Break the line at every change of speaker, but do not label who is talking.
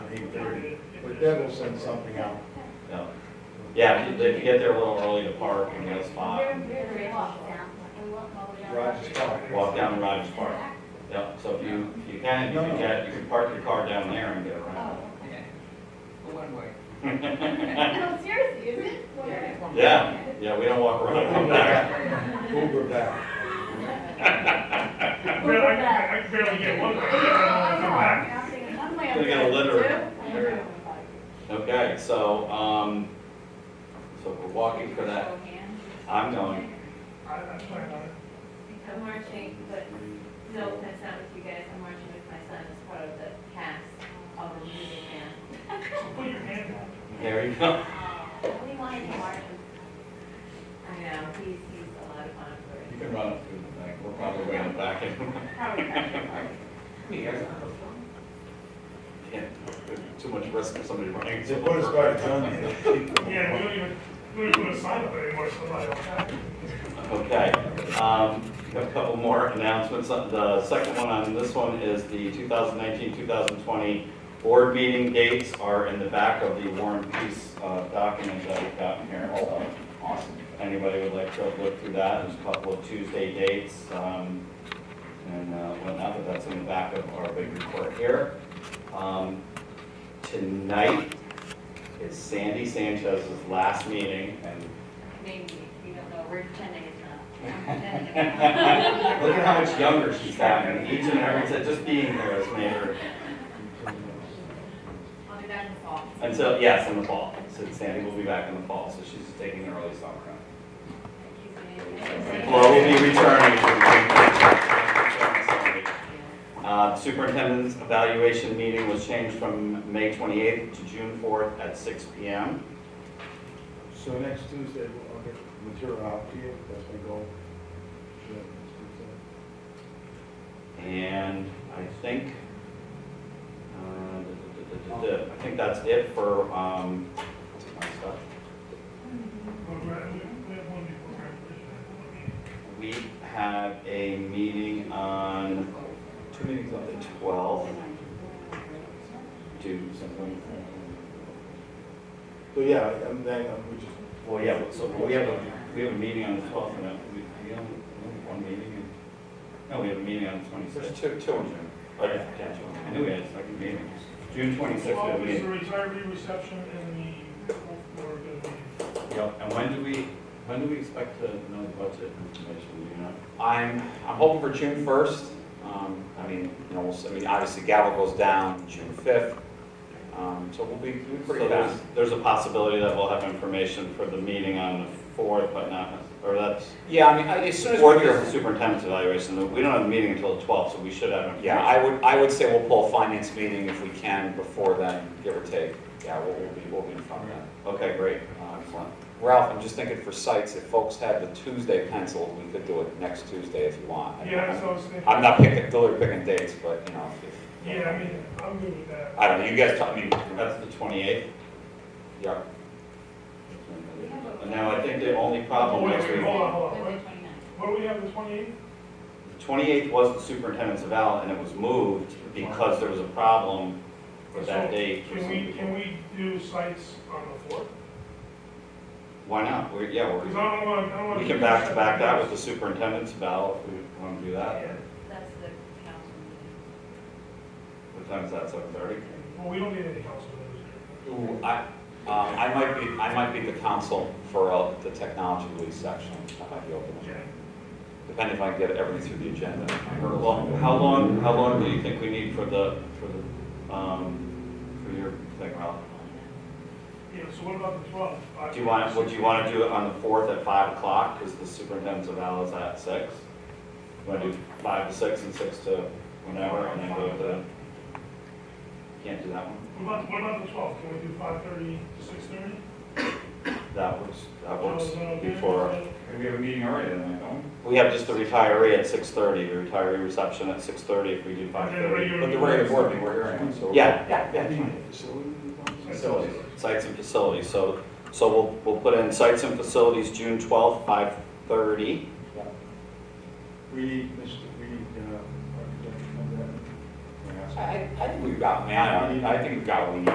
eight thirty, but Deb will send something out.
No. Yeah, if you- if you get there a little early to park and get a spot,
Roger's talking.
walk down to Rogers Park. Yep, so if you, if you can, you can get, you can park your car down there and get around.
Yeah, Go one way.
No, seriously, is it?
Yeah, yeah, we don't walk around from there.
Uber back.
I barely, I I barely get one. I don't know, come back.
Gonna get a litter. Okay, so, um, so we're walking for that. I'm going.
I- I'm sorry, I-
I'm marching, but no, that's not with you guys, I'm marching with my son as part of the cast of the music band.
Put your hand down.
There you go.
We wanted to march.
I know, he's, he's a lot of fun
You
for
can run up through the back. We're probably way in the back.
Probably not your part.
Yeah, Too much risk for somebody running.
They put us by the gun. they keep them.
Yeah, we don't even, we don't even put a sign up anymore, so I don't have.
Okay, um, a couple more announcements. Uh, The second one on this one is the 2019, 2020 board meeting dates are in the back of the War and Peace uh, document that we've gotten here. So
Awesome.
if anybody would like to look through that, there's a couple of Tuesday dates, um, and uh, whatnot, but that's in the back of our big report here. Um, Tonight is Sandy Sanchez's last meeting, and
Maybe, we don't know, we're pretending it's not. I'm pretending it's not.
Look at how much younger she's gotten. Each and every, just being there has made her,
I'll be back in the fall.
until, yes, in the fall. So Sandy will be back in the fall, so she's taking an early summer. Well, we'll be returning. to- Uh, Superintendent's evaluation meeting was changed from May 28th to June 4th at 6 PM.
So next Tuesday, we'll- I'll get material out to you, that's my goal. Yeah, next Tuesday.
And I think, uh, duh, duh, duh, duh, duh, duh. I think that's it for um, my stuff.
We're- we're- We have one before graduation, one meeting.
We have a meeting on, two meetings on the twelfth. Do something.
So yeah, and then um, we just,
Well, yeah, so we have a, we have a meeting on the twelfth, and uh, we, we only, we only have one meeting. in- No, we have a meeting on the
there's
twenty-sixth.
two, two in there.
Oh, yeah, yeah, I knew we had a second meeting. June twenty-sixth, we have
Twelve
a
is the
meeting.
retiree reception and the fourth meeting.
Yep, and when do we, when do we expect to know the budget information, do you know? I'm, I'm hoping for June first.
Um, I mean, you know, we'll s- I mean, obviously gavel goes down June fifth, um, so we'll be, we'll be
So
pretty
there's,
fast.
there's a possibility that we'll have information for the meeting on the fourth, but not, or that's,
Yeah, I mean, I- as soon as
fourth is the
we're,
superintendent's evaluation, we don't have a meeting until the twelfth, so we should have information.
yeah, I would, I would say we'll pull a finance meeting if we can before then, give or take. Yeah, we'll, we'll be, we'll be in front of that.
Okay, great,
Um,
excellent.
Ralph, I'm just thinking for sites, if folks had the Tuesday penciled, we could do it next Tuesday if you want. I mean,
Yeah,
I'm-
that's what I was thinking.
I'm not picking, deliberately picking dates, but, you know, if-
Yeah, I mean, I'm good with that.
I don't know, you guys, tell- I mean, that's,
That's the twenty-eighth.
yeah.
And now I think the only problem was,
Wait, wait,
the
hold on, hold on.
Wednesday, 29th.
What do we have, the twenty-eighth?
twenty-eighth was the superintendent's eval, and it was moved because there was a problem with that
So,
date.
Can we, can we do sites on the fourth?
Why not? We're, yeah,
Because
we're,
I don't want, I don't want.
we can back to back that with the superintendent's eval if we want to do that.
That's the council meeting.
What time is that, seven thirty?
Well, we don't need any council members.
Ooh, I, uh, I might be, I might be the counsel for uh, the technology lead section. I might be open,
Yeah.
depending if I can get everything through the agenda.
Or long, how long, how long do you think we need for the, for the, um, for your thing, Ralph?
Yeah, so what about the twelfth?
Do you want, would you want to do it on the fourth at five o'clock, because the superintendent's eval is at six? Want to do five to six and six to whenever, and then go to, can't do that one?
What about, what about the twelfth? Can we do five thirty to six thirty? Uh,
That works, that works before. And we have a meeting already, then, don't
We have just
Just the
the, re-
retiree at six thirty, the retiree reception at six thirty if we do five thirty.
but the regular board meeting, we're hearing it, so.
Yeah, yeah, yeah.
Facilities.
Sites and facilities, so, so we'll, we'll put in sites and facilities, June twelfth, five thirty.
We need, Mr. we need, uh, architect to come down.
Yeah.
I, I think we've got, man, I think we've got what we need.